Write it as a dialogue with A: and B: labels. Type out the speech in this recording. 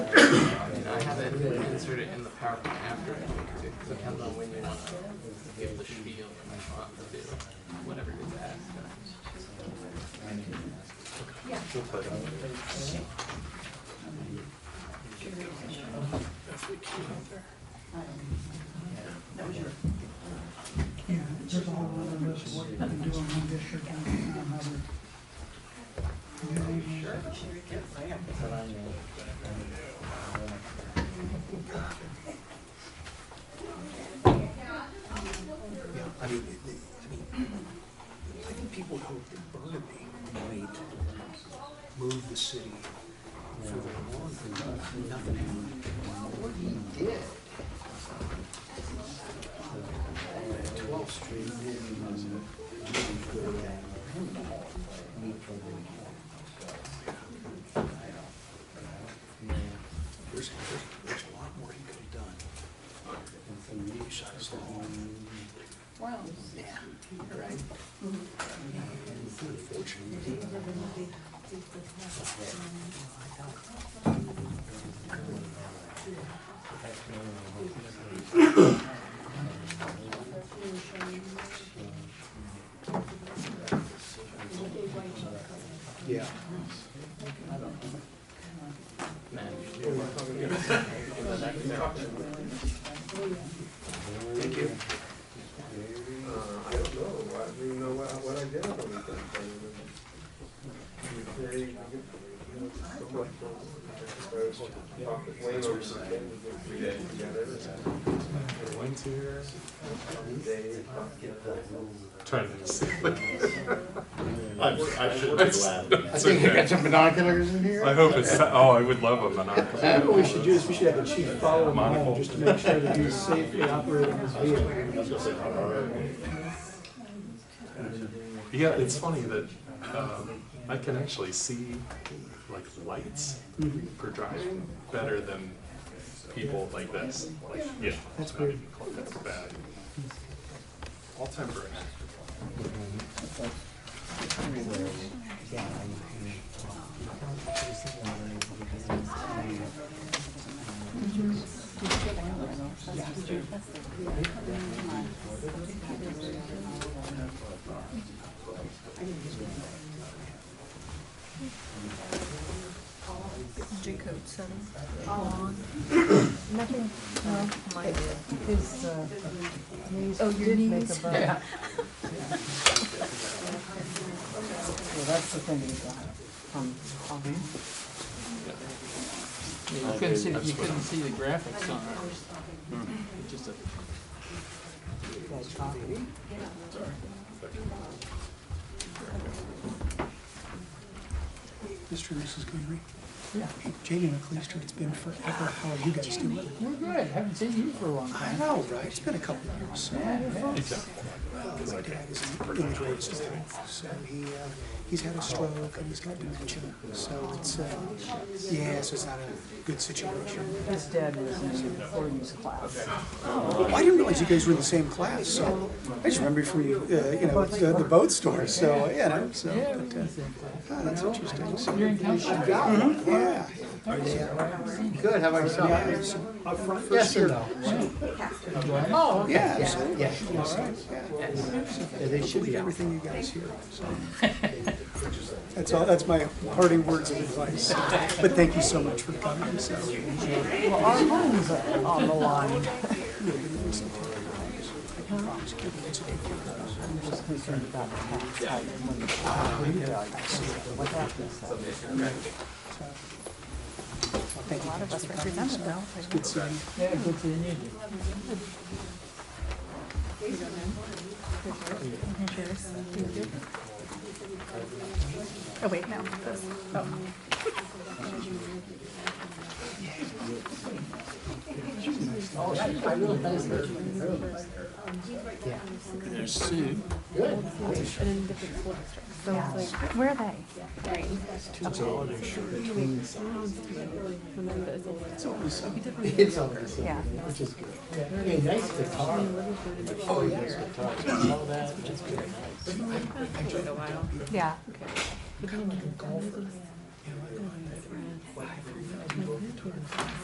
A: insert it in the PowerPoint after, it depends on when you wanna give the spiel and want to do, whatever you asked.
B: Yeah, there's a whole lot of us, what we do in one district and another.
A: Sure.
C: Yeah, I mean, it- it- I mean, I think people hope that Burnaby might move the city further along, but nothing happened. What he did. Twelfth Street didn't was a really good There's, there's, there's a lot more he could have done. Besides the whole
B: Wow.
C: yeah, right. Unfortunately. Yeah.
D: Thank you. I don't know, I don't even know what, what I did on the weekend. I mean, they- so much was- I was talking to Wayne over the weekend, we did three days together, and one day,
E: Trying to see.
F: I, I should be laughing.
G: I think I got some binoculars in here.
E: I hope it's. Oh, I would love a monopoly.
C: What we should do is we should have the chief follow him home
E: Monocle.
C: just to make sure that he's safely operating his vehicle.
E: Yeah, it's funny that um, I can actually see like lights
C: Mm-hmm.
E: for driving better than people like this. Like, yeah, that's not even close. That's bad. All temporary.
H: J code seven. Nothing, no, mine did.
B: His, uh, knees
H: Oh, your
B: did make a
H: knees.
B: bone. Well, that's the thing that he got from, from.
A: You couldn't see, you couldn't see the graphics on it. It's Just a.
C: Mr. and Mrs. Greenery? Yeah. Jane and Cleaster, it's been forever. How are you guys doing?
A: We're good, haven't seen you for a long
C: I know, right? It's been a couple of years. so- Well, my dad is in the great storm, so he, uh, he's had a stroke and he's got dementia, so it's, uh, yeah, so it's not a good situation.
B: His dad was in the forties class.
C: Well, I didn't realize you guys were in the same class, so I just remember you from, you uh, you know, the, the boat store, so, you know, so. but, uh, oh, That's interesting. So,
A: You're in council.
C: Yeah.
G: Good, how about yourself?
C: Yes or no?
A: Oh, okay.
C: Yeah, absolutely.
G: Yeah.
C: Yes, yeah.
G: Yeah, They should
C: believe
G: be out.
C: everything you guys hear. so. That's all, that's my parting words of advice. But thank you so much for coming, so.
B: Well, our homes are on the line. I'm just concerned about the tax side and when the property values, what happens then?
H: A lot of us represented though.
B: Yeah, good to meet you.
H: Cheers. Oh, wait, no. that's- oh. So it's like, where are they?
G: It's all right.
H: Yeah.
G: Hey, nice to talk. Oh, yeah.
H: Yeah.